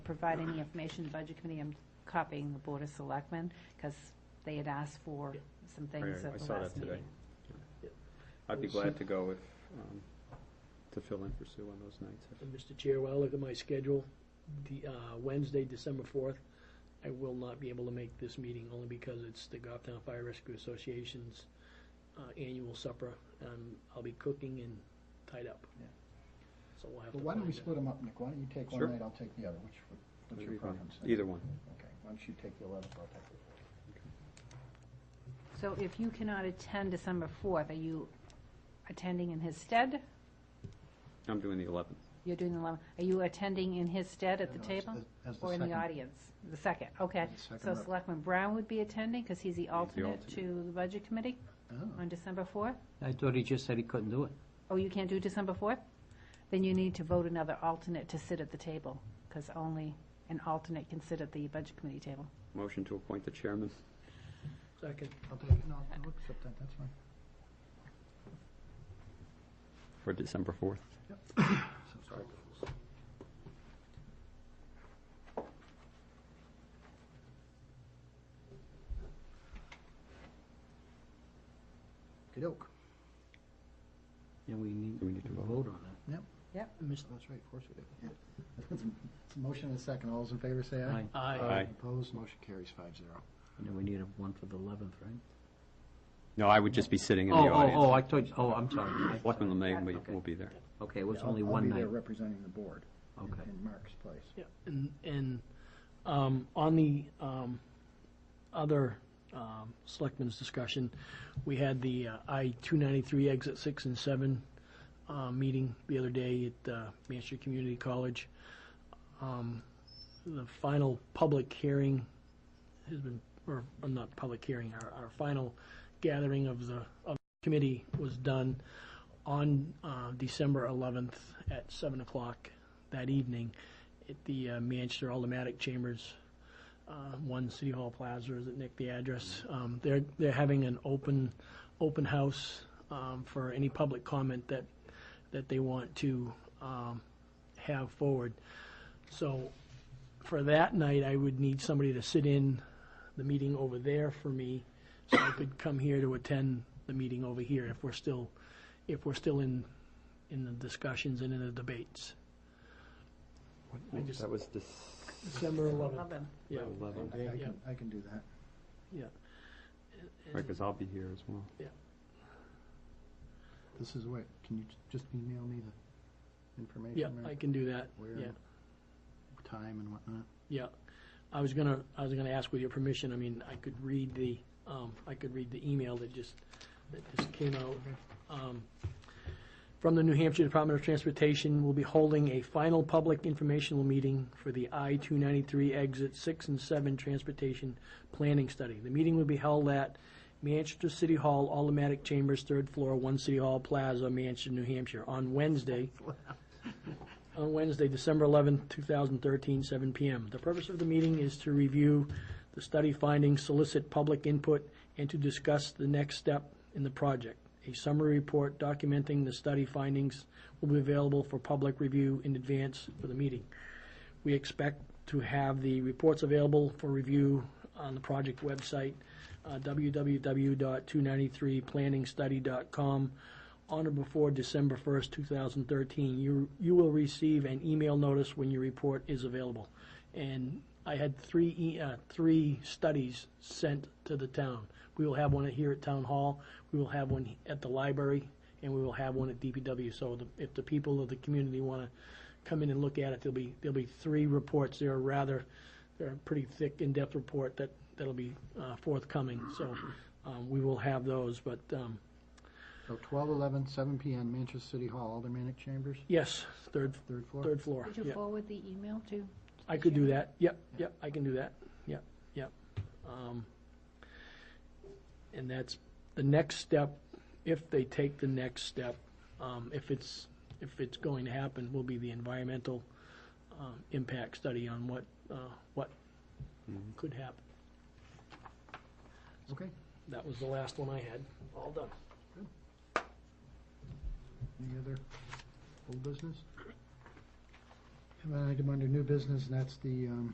provide any information to the Budget Committee, I'm copying the Board of Selectmen, because they had asked for some things Right, at I the saw last that today. meeting. Yeah. I'd be glad to go if, um, to fill in for Sue on those nights. if- And Mr. Chair, while I look at my schedule, the, uh, Wednesday, December fourth, I will not be able to make this meeting only because it's the Goffstown Fire Rescue Association's, uh, annual supper, and I'll be cooking and tied up. Yeah. So we'll have to Well, why don't we find out. split them up, Nick? Why don't you take Sure. one night, I'll take the other, which, would- what's Either your one. preference? Either one. Okay, why don't you take the eleventh, I'll take the fourth. So if you cannot attend December 4th, are you attending in his stead? I'm doing the 11th. You're doing the, lo- are you attending in his stead at the No, as- table? as- as the Or in the second. audience? The second, okay. As the second So rep. Selectman Brown would be attending, because he's the alternate alternate. to the Budget Committee Oh, on December 4th? I thought he just said he couldn't do it. Oh, you can't do December 4th? Then you need to vote another alternate to sit at the table, because only an alternate can sit at the Budget Committee table. Motion to appoint the chairman. Second, I'll take it, no, I'll accept that, that's fine. For December 4th. So, sorry. Okey-doke. And we need Do we need to to vote? vote on it. Mr. That's right, of course we do. It's a motion and a second, all those in favor say aye. Aye. aye. Aye. Opposed, motion carries five zero. And then we need a one for the 11th, right? No, I would just be sitting in the Oh, oh, oh, audience. I thought, you- oh, I'm sorry. I- Selectman Lemay will Okay. be- will be there. Okay, it was I'll- only one I'll be night. there representing the board in- Okay. in Mark's place. Yeah, and, and, um, on the, um, other, um, selectmen's discussion, we had the uh, I two ninety-three exit six and seven, uh, meeting the other day at, uh, Manchester Community College. Um, the final public hearing has been, or, or not public hearing, our, our final gathering of the, of the committee was done on, uh, December eleventh at seven o'clock that evening at the uh, Manchester Aldermatic Chambers, uh, one City Hall Plaza, is it Nick, the address? Um, They're, they're having an open, open house um, for any public comment that, that they want to um, have forward. So for that night, I would need somebody to sit in the meeting over there for me, so I could come here to attend the meeting over here if we're still, if we're still in, in the discussions and in the debates. I just- That was December 11th, Eleven. yeah. 11th. I- I Yeah. can, I can do that. Right, because I'll be here as well. This is what, can you j- just email me the information? Yeah, Mary? I can do that, Where, yeah, time and whatnot? yeah. I was gonna, I was gonna ask with your permission, I mean, I could read the, um, I could read the email that just, that just came out. Um, From the New Hampshire Department of Transportation, we'll be holding a final public informational meeting for the I-293 exit 6 and 7 transportation planning study. The meeting will be held at Manchester City Hall, Automatic Chambers, third floor, One City Hall Plaza, Manchester, New Hampshire, on Wednesday, on Wednesday, December 11th, 2013, 7 p.m. The purpose of the meeting is to review the study findings, solicit public input, and to discuss the next step in the project. A summary report documenting the study findings will be available for public review in advance for the meeting. We expect to have the reports available for review on the project website, uh, www.293planningstudy.com, on or before December 1st, 2013. You, you will receive an email notice when your report is available. And I had three, e- uh, three studies sent to the town. We will have one here at Town Hall, we will have one at the library, and we will have one at DPW. So the- if the people of the community want to come in and look at it, there'll be, there'll be three reports. They're rather, they're a pretty thick, in-depth report that, that'll be uh, forthcoming. So um, we will have those, but um, So 12, 11, 7 p.m., Manchester City Hall, Aldermanic Chambers, yes, third, third floor? third floor. Did you Yeah. forward the email to? I could do that, yep, yep, I can do that, yep, yep. Um, And that's the next step, if they take the next step, um, if it's, if it's going to happen, will be the environmental um, impact study on what, uh, what could happen. Okay, That was the last one I had, all done. any other old business? Have an item under new business, and that's the, um,